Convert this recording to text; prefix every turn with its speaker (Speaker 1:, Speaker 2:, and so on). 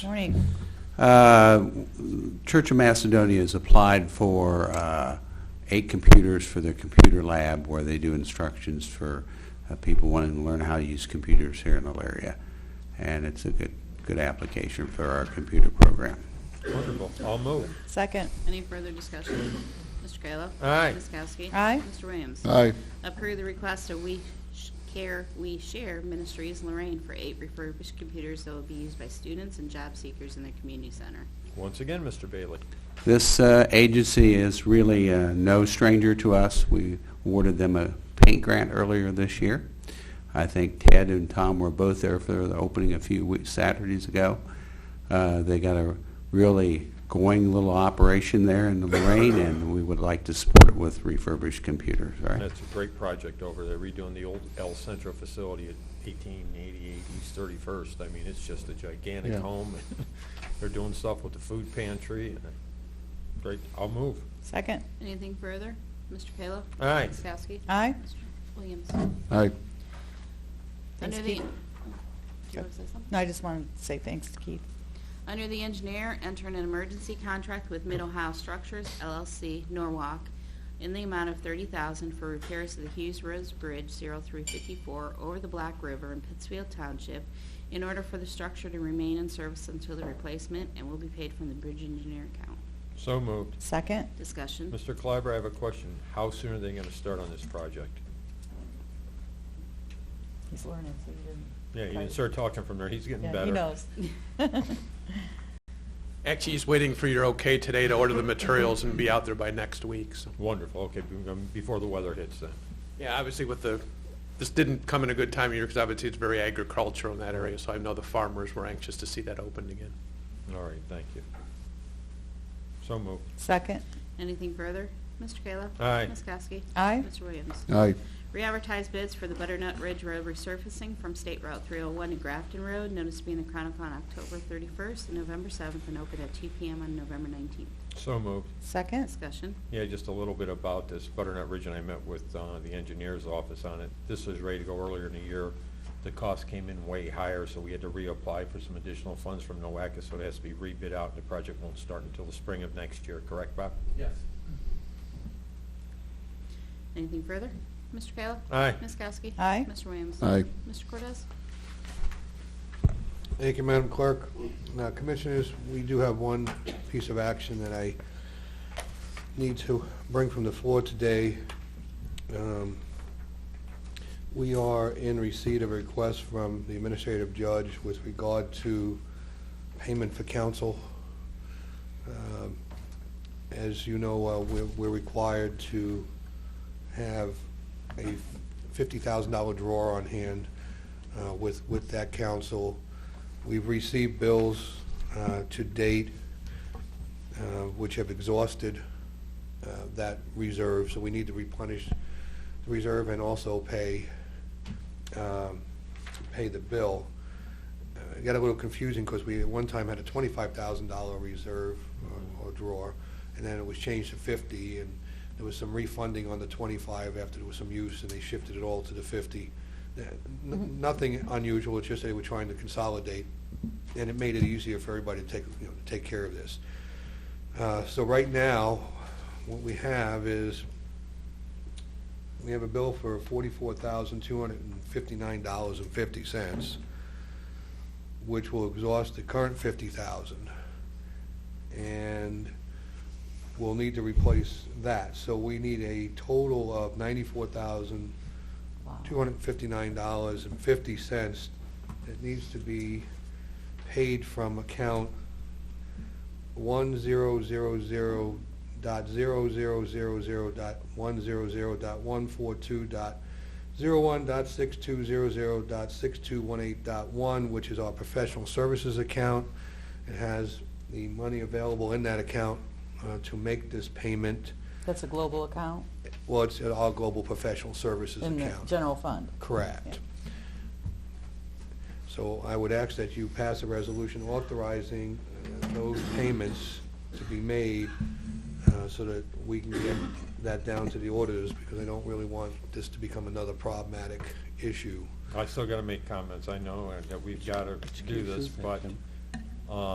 Speaker 1: Morning.
Speaker 2: Uh, Church of Macedonia has applied for uh, eight computers for their computer lab where they do instructions for uh, people wanting to learn how to use computers here in Elaria. And it's a good, good application for our computer program.
Speaker 3: Wonderful. I'll move.
Speaker 1: Second.
Speaker 4: Any further discussion? Mr. Kayla?
Speaker 3: Aye.
Speaker 4: Ms. Kowski?
Speaker 1: Aye.
Speaker 4: Mr. Williams?
Speaker 5: Aye.
Speaker 4: Approve the request of We Sh- Care, We Share Ministries Lorraine for eight refurbished computers that will be used by students and job seekers in the community center.
Speaker 3: Once again, Mr. Bailey.
Speaker 2: This uh, agency is really uh, no stranger to us. We awarded them a paint grant earlier this year. I think Ted and Tom were both there for the opening a few weeks, Saturdays ago. Uh, They got a really going little operation there in Lorraine, and we would like to support it with refurbished computers, all right?
Speaker 3: That's a great project over there, redoing the old El Centro facility at 1888 East 31st. I mean, it's just a gigantic
Speaker 5: Yeah.
Speaker 3: home. They're doing stuff with the food pantry. and Great. I'll move.
Speaker 1: Second.
Speaker 4: Anything further? Mr. Kayla?
Speaker 3: Aye.
Speaker 4: Ms. Kowski?
Speaker 1: Aye.
Speaker 4: Mr. Williams?
Speaker 5: Aye.
Speaker 1: Thanks,
Speaker 4: Under the-
Speaker 1: Keith.
Speaker 4: Do you want to say something?
Speaker 1: No, I just wanted to say thanks to Keith.
Speaker 4: Under the engineer, enter an emergency contract with Mid-Ohio Structures LLC, Norwalk, in the amount of 30000 for repairs to the Hughes Roads Bridge 0354 over the Black River in Pittsfield Township in order for the structure to remain in service until the replacement and will be paid from the bridge engineer account.
Speaker 3: So moved.
Speaker 1: Second.
Speaker 4: Discussion.
Speaker 3: Mr. Clyber, I have a question. How soon are they going to start on this project?
Speaker 1: He's learning, so he didn't.
Speaker 3: Yeah, you can start talking from there. He's getting
Speaker 1: Yeah,
Speaker 3: better.
Speaker 1: He knows.
Speaker 6: Actually, he's waiting for your okay today to order the materials and be out there by next week. So,
Speaker 3: Wonderful. Okay, be- um, before the weather hits then.
Speaker 6: yeah, obviously with the, this didn't come in a good time of year because obviously it's very agricultural in that area. So I know the farmers were anxious to see that opened again.
Speaker 3: All right, thank you. So moved.
Speaker 1: Second.
Speaker 4: Anything further? Mr. Kayla?
Speaker 3: Aye.
Speaker 4: Ms. Kowski?
Speaker 1: Aye.
Speaker 4: Mr. Williams?
Speaker 5: Aye.
Speaker 4: Re-advertise bids for the Butternut Ridge Road resurfacing from State Route 301 to Grafton Road, notice to be in the Chronicle on October 31st and November 7th, and open at 2 PM on November 19th.
Speaker 3: So moved.
Speaker 1: Second.
Speaker 4: Discussion.
Speaker 3: Yeah, just a little bit about this Butternut Ridge, and I met with uh, the engineer's office on it. This was ready to go earlier in the year. The cost came in way higher, so we had to reapply for some additional funds from NOACA, so it has to be rebid out. The project won't start until the spring of next year, correct, Bob?
Speaker 6: Yes.
Speaker 4: Anything further? Mr. Kayla?
Speaker 3: Aye.
Speaker 4: Ms. Kowski?
Speaker 1: Aye.
Speaker 4: Mr. Williams?
Speaker 5: Aye.
Speaker 4: Mr. Cortez?
Speaker 7: Thank you, Madam Clerk. Now, Commissioners, we do have one piece of action that I need to bring from the floor today. Um, We are in receipt of a request from the Administrative Judge with regard to payment for counsel. Um, As you know, uh, we're we're required to have a $50,000 drawer on hand uh, with with that counsel. We've received bills uh, to date uh, which have exhausted uh, that reserve, so we need to replenish the reserve and also pay, um, pay the bill. Uh, It got a little confusing because we at one time had a $25,000 reserve uh, or- or drawer, and then it was changed to 50, and there was some refunding on the 25 after there was some use, and they shifted it all to the 50. Uh, n- Nothing unusual, it's just they were trying to consolidate, and it made it easier for everybody to take, you know, to take care of this. Uh, So right now, what we have is, we have a bill for forty-four thousand, two hundred and fifty-nine dollars and fifty cents, which will exhaust the current fifty thousand. And we'll need to replace that. So we need a total of ninety-four thousand, two hundred and fifty-nine dollars and fifty cents that needs to be paid from account one zero zero zero dot zero zero zero zero dot one zero zero dot one four two dot zero one dot six two zero zero dot six two one eight dot one, which is our professional services account. It has the money available in that account uh, to make this payment.
Speaker 1: That's a global account
Speaker 7: Well, it's our global professional services
Speaker 1: in the
Speaker 7: account.
Speaker 1: general fund.
Speaker 7: Correct. So I would ask that you pass a resolution authorizing uh, those payments to be made uh, so that we can get that down to the auditors, because I don't really want this to become another problematic issue.
Speaker 3: I still got to make comments. I know uh, that we've got to do this, but